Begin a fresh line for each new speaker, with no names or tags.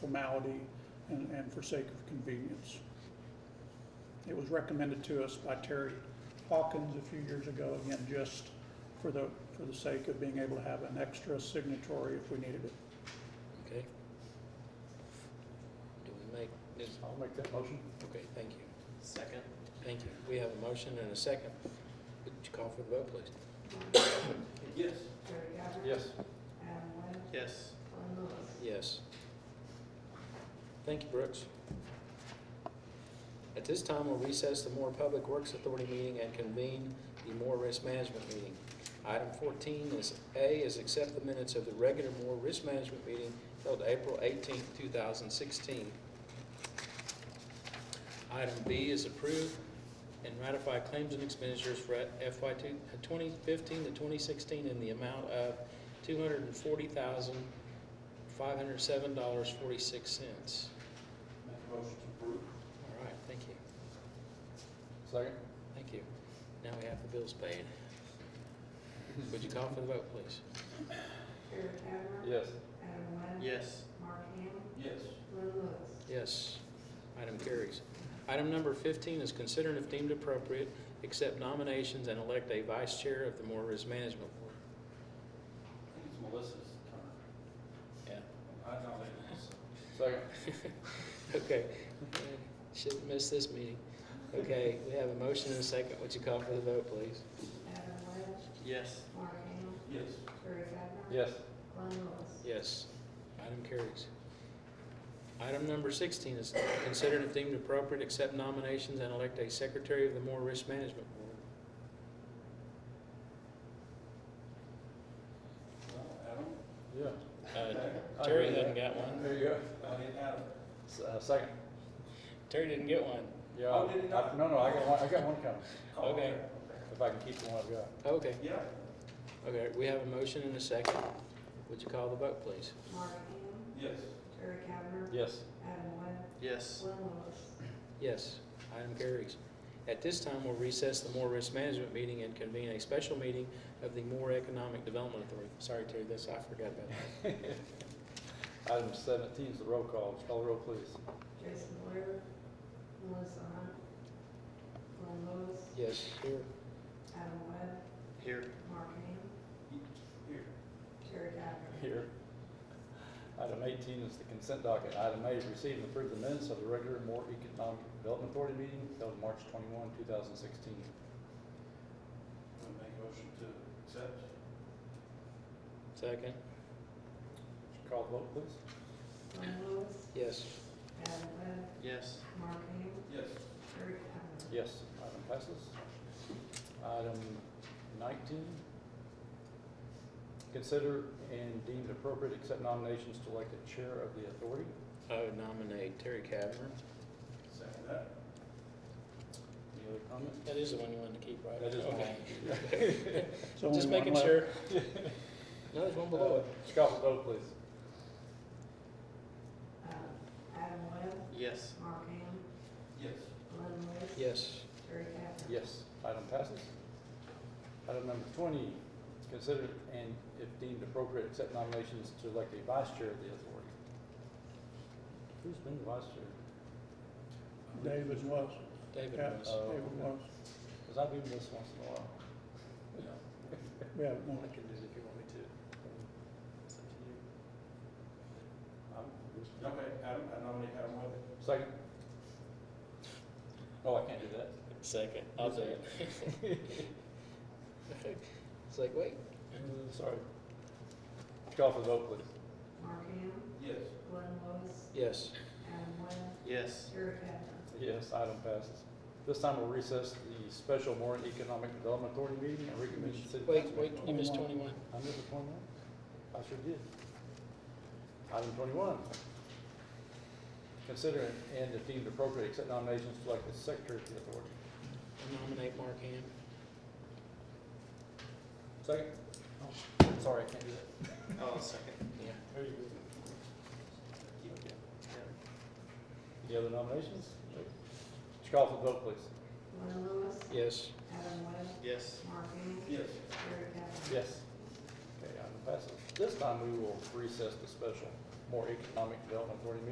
formality and, and for sake of convenience. It was recommended to us by Terry Hawkins a few years ago, again, just for the, for the sake of being able to have an extra signatory if we needed it.
Okay. Do we make this,
I'll make that motion.
okay, thank you.
Second.
Thank you. We have a motion and a second. Would you call for the vote, please?
Yes.
Terry Cavanagh.
Yes.
Adam Webb.
Yes.
Glenn Lewis.
Yes. Thank you, Brooks. At this time, we'll recess the Moore Public Works Authority meeting and convene the Moore Risk Management meeting. Item fourteen is A, is accept the minutes of the regular Moore Risk Management meeting held April eighteenth, two thousand sixteen. Item B is approve and ratify claims and expenditures for FY two- 2015 to twenty sixteen in the amount of two hundred and forty thousand, five hundred seven dollars forty-six cents.
Make a motion to approve.
All right, thank you,
Second?
thank you. Now we have the bills paid. Would you call for the vote, please?
Terry Cavanagh.
Yes.
Adam Webb.
Yes.
Mark Ham.
Yes.
Glenn Lewis.
Yes, item carries. Item number fifteen is consider and if deemed appropriate, accept nominations and elect a vice chair of the Moore Risk Management Board.
I think it's Melissa's turn.
Yeah.
I nominate Melissa. Second?
Okay, shouldn't miss this meeting. Okay, we have a motion and a second. Would you call for the vote, please?
Adam Webb.
Yes.
Mark Ham.
Yes.
Terry Cavanagh.
Yes.
Glenn Lewis.
Yes. Item carries. Item number sixteen is considered if deemed appropriate, accept nominations and elect a secretary of the Moore Risk Management Board.
Adam? Yeah.
Uh, Terry hadn't got one.
There you go.
I didn't have
S- uh, Second?
Terry didn't get one.
Yeah.
Oh, did it not?
I- No, no, I got one, I got one coming,
Okay.
if I can keep the one I've got.
Okay,
Yeah.
okay, we have a motion and a second. Would you call the vote, please?
Mark Ham.
Yes.
Terry Cavanagh.
Yes.
Adam Webb.
Yes.
Glenn Lewis.
Yes, item carries. At this time, we'll recess the Moore Risk Management Meeting and convene a special meeting of the Moore Economic Development Authority. Sorry, Terry, this, I forgot about that.
Item seventeen is the roll call, call the roll please.
Jason Blair. Melissa Hunt. Glenn Lewis.
Yes, here.
Adam Webb.
Here.
Mark Ham.
Here.
Terry Cavanagh.
Here. Item eighteen is the consent docket. Item A, receive and approve the minutes of the regular Moore Economic Development Authority meeting held March twenty-one, two thousand sixteen.
Make a motion to accept.
Second?
Call the vote, please.
Glenn Lewis.
Yes.
Adam Webb.
Yes.
Mark Ham.
Yes.
Terry Cavanagh.
Yes, item passes. Item nineteen, consider and deem it appropriate accept nominations to elect a chair of the authority.
I would nominate Terry Kavner.
Second that.
Any other comment?
That is the one you wanted to keep, right?
That is
Okay.
mine.
It's only
Just
one
making
left.
sure. No, there's one below it.
Uh, Call the vote, please.
Uh, Adam Webb.
Yes.
Mark Ham.
Yes.
Glenn Lewis.
Yes.
Terry Cavanagh.
Yes, item passes. Item number twenty, consider and if deemed appropriate, accept nominations to elect a vice chair of the authority. Who's been the vice chair?
David was,
David
yeah,
was.
Oh,
David
okay.
was.
Because I've been this once in a while.
We haven't won
can do it if you want me to. It's up to you. Okay, Adam, I nominate Adam Webb.
Second. Oh, I can't do that.
Second. I'll do it. It's like, wait.
Uh, Sorry. Call for the vote, please.
Mark Ham.
Yes.
Glenn Lewis.
Yes.
Adam Webb.
Yes.
Terry Cavanagh.
Yes, item passes. This time we'll recess the special Warren Economic Development Authority meeting and reconvene the city.
Wait,
council.
wait, you missed twenty-one.
I missed a twenty-one? I sure did. Item twenty-one. Consider and if deemed appropriate, accept nominations to elect the secretary of the authority.
Nominate Mark Ham.
Second? Sorry, I can't do that.
Oh, second.
Yeah.
There you go.
Yeah.
Any other nominations? Would you call for the vote, please?
Glenn Lewis.
Yes.
Adam Webb.
Yes.
Mark Ham.
Yes.
Terry Cavanagh.
Yes. Okay, item passes. This time we will recess the special more Economic Development Authority meeting